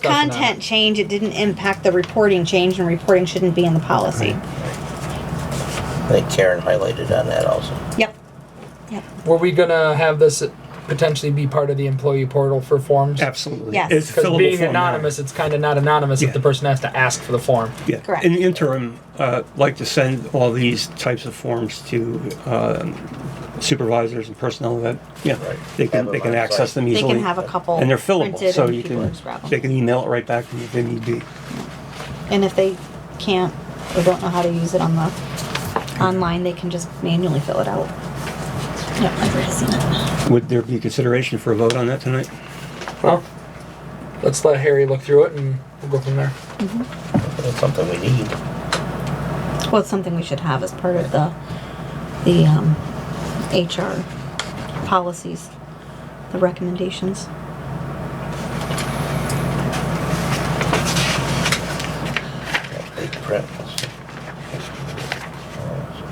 discussion on it. content change, it didn't impact the reporting change, and reporting shouldn't be in the policy. I think Karen highlighted on that also. Yep. Yep. Were we gonna have this potentially be part of the employee portal for forms? Absolutely. Yes. It's Because fillable being form now. anonymous, it's kind of not anonymous Yeah. if the person has to ask for the form. Yeah. Correct. In the interim, uh, like to send all these types of forms to um, supervisors and personnel that, yeah, Right. they Have can, it they can on access site. them They easily. can have a couple And they're fillable, printed so and you people can, just grab 'em. they can email it right back to you if they need be. And if they can't or don't know how to use it on the online, they can just manually fill it out. Yep, I've already seen it. Would there be consideration for a vote on that tonight? Well, let's let Harry look through it and we'll go from there. That's something we need. Well, it's something we should have as part of the, the, um, HR policies, the recommendations. Big print.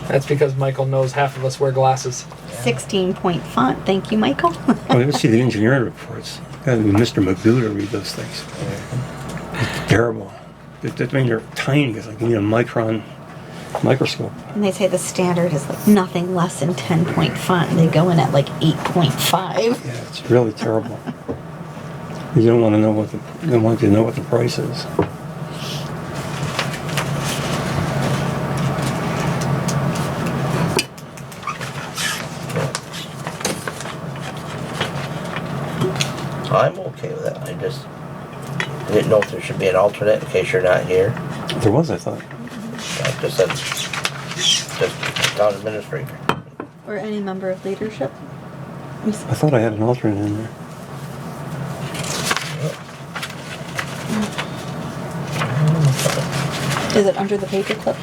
That's because Michael knows half of us wear glasses. Sixteen point font, thank you, Michael. Well, let's see the engineering reports. Gotta be Mr. Magoo to read those things. It's Terrible. That, that, I mean, they're tiny, it's like you need a micron microscope. And they say the standard is like nothing less than ten point font, and they go in at like eight point five. Yeah, it's really terrible. You don't want to know what the, you don't want you to know what the price is. I'm okay with that. I just didn't know if there should be an alternate in case you're not here. There was, I thought. I just said, just town administrator. Or any member of leadership. I thought I had an alternate in there. Is it under the paperclip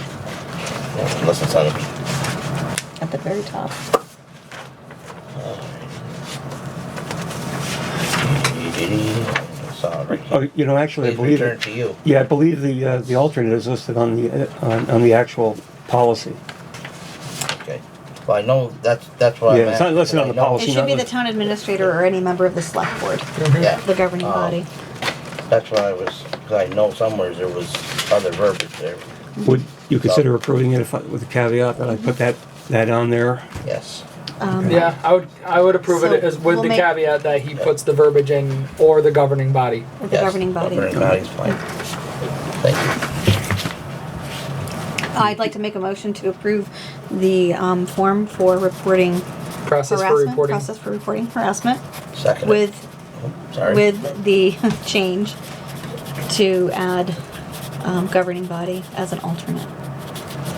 Yeah, Unless it's on a, at the very top? it's on a Oh, right. you know, actually, I Please believe return it. to you. Yeah, I believe the uh, the alternate is listed on the uh, on, on the actual policy. Okay. Well, I know that's, that's why I'm Yeah, it's not asking, listed but on I the know- policy. It should be the town administrator or any member of the select board, Yeah. the governing Oh. Um, body. That's why I was, cause I know somewhere there was other verbiage there. Would you consider approving it if I, with the caveat that I put that that on there? Yes. Um, Yeah, I would I would approve So it as with we'll the make- caveat that he puts the verbiage in or the governing body. or The Yes. governing body. Governing body's fine. Thank you. I'd like to make a motion to approve the, um, form for reporting Process for harassment, reporting. process for reporting harassment Second. with Sorry. with the change to add um, governing body as an alternate.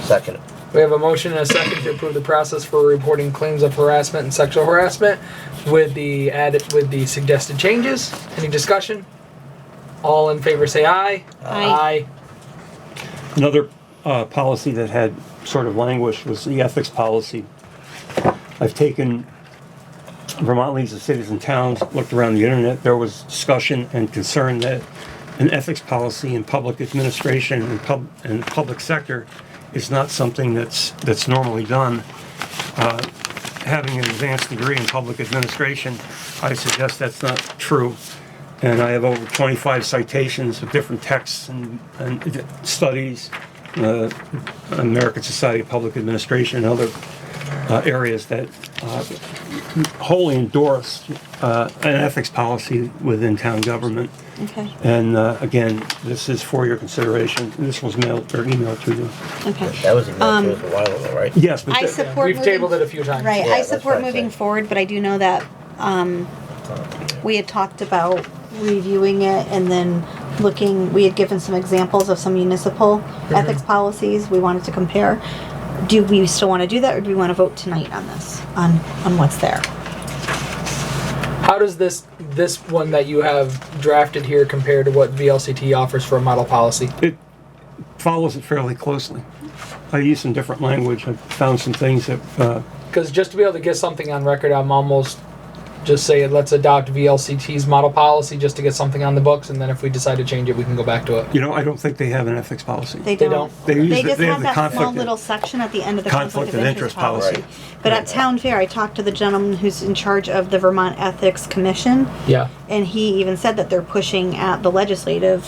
Second. We have a motion and a second to approve the process for reporting claims of harassment and sexual harassment with the added with the suggested changes. Any discussion? All in favor say aye. Aye. Another uh, policy that had sort of languished was the ethics policy. I've taken Vermont leads the cities and towns, looked around the internet, there was discussion and concern that an ethics policy in public administration and pub, and public sector is not something that's, that's normally done. Uh, Having an advanced degree in public administration, I suggest that's not true. And I have over 25 citations of different texts and, and studies, uh, American Society of Public Administration and other uh, areas that uh, wholly endorse uh, an ethics policy within town government. Okay. And uh, again, this is for your consideration. This was mailed or emailed to you. Okay. That was emailed to us Um, a while ago, right? Yes, but I th- Aye. support. We've moving- tabled it a few times. Right. Yeah, I that's what support I'm moving saying. forward, but I do know that um, we had talked about reviewing it and then looking. We had given some examples of some municipal Mm-hmm. ethics policies we wanted to compare. Do we still want to do that, or do we want to vote tonight on this on on what's there? How does this this one that you have drafted here compare to what VLCT offers for a model policy? it follows it fairly closely. I used some different language. I found some things that uh, Because just to be able to get something on record, I'm almost Just say it, let's adopt VLCT's model policy just to get something on the books, and then if we decide to change it, we can go back to it. You know, I don't think they have an ethics policy. They They don't. don't. They use They the- just they have have the that small conflict- little section at the end of the Conflict of interest policy. But at town fair, I talked to the gentleman who's in charge of the Vermont Ethics Commission, Yeah. and he even said that they're pushing at the legislative